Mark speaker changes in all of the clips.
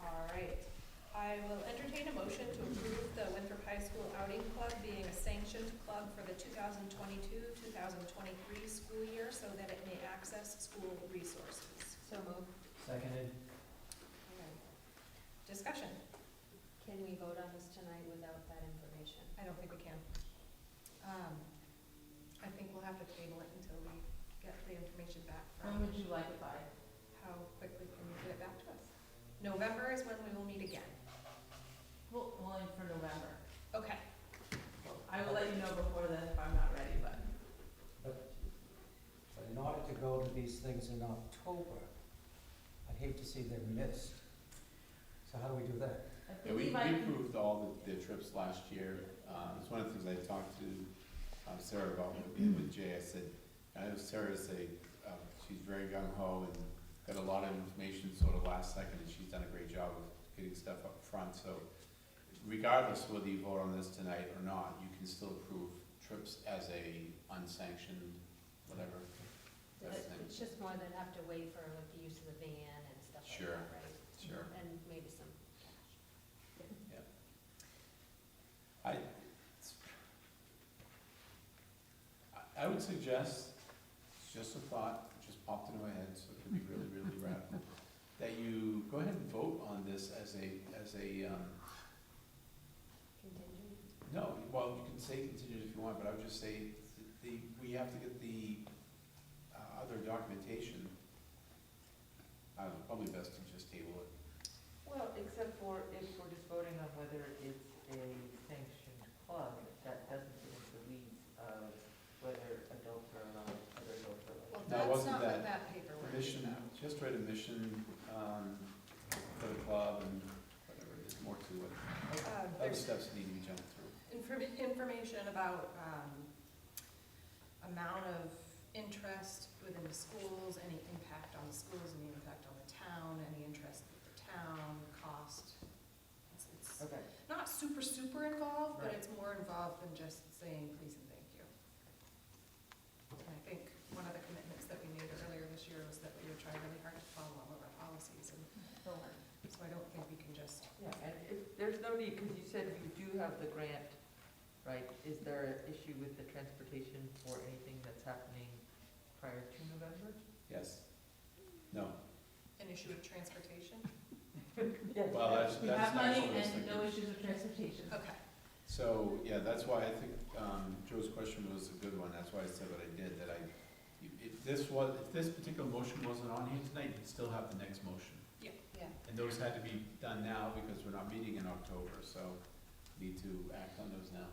Speaker 1: All right, I will entertain a motion to approve the Winthrop High School Outing Club being a sanctioned club for the 2022-2023 school year so that it may access school resources.
Speaker 2: So moved.
Speaker 3: Seconded,
Speaker 1: Discussion?
Speaker 2: Can we vote on this tonight without that information?
Speaker 1: I don't think we can. Um, I think we'll have to table it until we get the information back
Speaker 4: When
Speaker 1: from,
Speaker 4: would you like it by?
Speaker 1: how quickly can you get it back to us? November is when we will meet again.
Speaker 4: Well, only for November.
Speaker 1: Okay,
Speaker 4: I will let you know before then if I'm not ready, but.
Speaker 3: but, but in order to go to these things in October, I'd hate to see them missed. So how do we do that?
Speaker 4: I
Speaker 5: Yeah,
Speaker 4: think
Speaker 5: we,
Speaker 4: we
Speaker 5: we
Speaker 4: might,
Speaker 5: approved all the, the trips last year. Um, it's one of the things I talked to um, Sarah about with- with Jay. I said, I know Sarah's a, uh, she's very gung ho and got a lot of information sort of last second and she's done a great job of getting stuff up front. So regardless whether you vote on this tonight or not, you can still approve trips as a unsanctioned, whatever. That's
Speaker 2: But It's just more than have to wait for like the use of the van and stuff like
Speaker 5: Sure.
Speaker 2: that, right?
Speaker 5: Sure.
Speaker 2: And maybe some cash.
Speaker 5: I, it's- I- I would suggest, it's just a thought, it just popped into my head, so it could be really, really radical, that you go ahead and vote on this as a, as a, um,
Speaker 2: Contingent?
Speaker 5: no, well, you can say contingent if you want, but I would just say the, we have to get the, uh, other documentation. I don't know, probably best to just table it.
Speaker 6: Well, except for if we're just voting on whether it's a sanctioned club, that doesn't get into the weeds of whether adults are allowed, other adults are allowed.
Speaker 1: well,
Speaker 5: No, it
Speaker 1: that's
Speaker 5: wasn't
Speaker 1: not what
Speaker 5: that.
Speaker 1: that paperwork is
Speaker 5: Mission,
Speaker 1: about.
Speaker 5: just read a mission, um, for the club and whatever, there's more to it.
Speaker 1: Um,
Speaker 5: Other
Speaker 1: There's
Speaker 5: steps need to be jumped through.
Speaker 1: inform- information about um, amount of interest within the schools, any impact on the schools, any impact on the town, any interest with the town, cost. It's- It's
Speaker 6: Okay,
Speaker 1: not super, super involved, but
Speaker 6: Right.
Speaker 1: it's more involved than just saying please and thank you. And I think one of the commitments that we made earlier this year was that we would try really hard to follow all of our policies, and
Speaker 4: we'll learn.
Speaker 1: so I don't think we can just
Speaker 6: yeah, and if, there's no need, because you said you do have the grant, right? Is there an issue with the transportation for anything that's happening prior to November?
Speaker 5: Yes. No.
Speaker 1: an issue of transportation.
Speaker 6: Yes.
Speaker 5: Well, that's,
Speaker 4: We have
Speaker 5: that's not
Speaker 4: money
Speaker 5: what I was
Speaker 4: and no
Speaker 5: thinking.
Speaker 4: issues with transportation.
Speaker 1: Okay.
Speaker 5: So, yeah, that's why I think, um, Joe's question was a good one. That's why I said what I did, that I, if this was, if this particular motion wasn't on here tonight, you'd still have the next motion.
Speaker 2: Yeah.
Speaker 5: And those had to be done now because we're not meeting in October, so need to act on those now.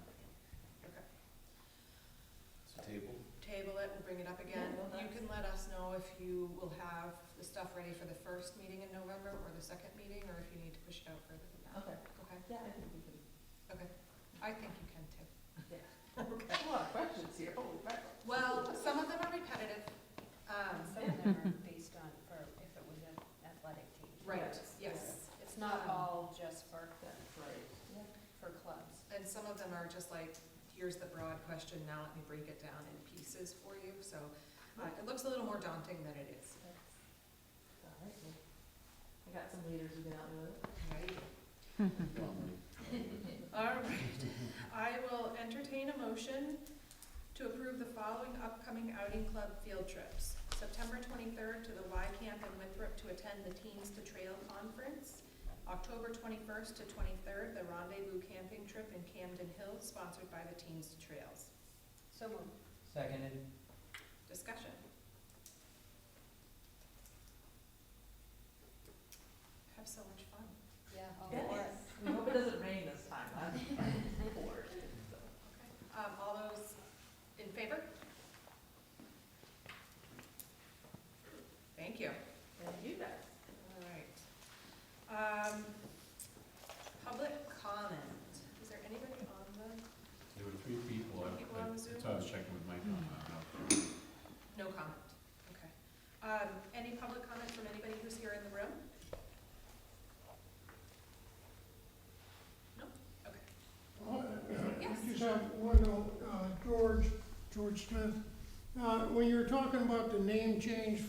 Speaker 1: Okay.
Speaker 5: So table?
Speaker 1: table it, we'll bring it up again.
Speaker 4: Yeah, well,
Speaker 1: You can let us know if you will have the stuff ready for the first meeting in November or the second meeting, or if you need to push it out further than that.
Speaker 4: Okay,
Speaker 1: Okay,
Speaker 4: yeah, I think we can.
Speaker 1: I think you can too.
Speaker 4: A lot of questions here, oh, right.
Speaker 1: Well, some of them are repetitive, um,
Speaker 2: Some of them are based on, for if it was an athletic team.
Speaker 1: right,
Speaker 4: Yes.
Speaker 1: yes.
Speaker 2: It's
Speaker 1: Um,
Speaker 2: not all just for,
Speaker 4: That's right.
Speaker 2: for clubs.
Speaker 1: And some of them are just like, here's the broad question, now let me break it down in pieces for you, so, uh, it looks a little more daunting than it is.
Speaker 4: All right, well, I got some leaders who can help me with it.
Speaker 1: Right? Mm-hmm.
Speaker 5: Normally.
Speaker 1: All right, I will entertain a motion to approve the following upcoming outing club field trips. September twenty-third to the Y Camp in Winthrop to attend the Teens to Trail Conference. October twenty-first to twenty-third, the Rendezvous Camping Trip in Camden Hills, sponsored by the Teens to Trails.
Speaker 2: So moved.
Speaker 3: Seconded,
Speaker 1: Discussion. Have so much fun.
Speaker 2: Yeah, all
Speaker 4: Yes.
Speaker 2: for it.
Speaker 4: We hope it doesn't rain this time, I'm bored.
Speaker 1: Um, all those in favor? Thank you.
Speaker 4: And you guys.
Speaker 1: All right. Um, public comment. Is there anybody on the,
Speaker 5: There were three people, I,
Speaker 1: People on Zoom?
Speaker 5: that's why I was checking with Mike on, uh,
Speaker 1: no comment? Okay. Um, any public comment from anybody who's here in the room? No? Okay. Yes.
Speaker 7: I just have one, uh, George, George Smith. Uh, When you were talking about the name change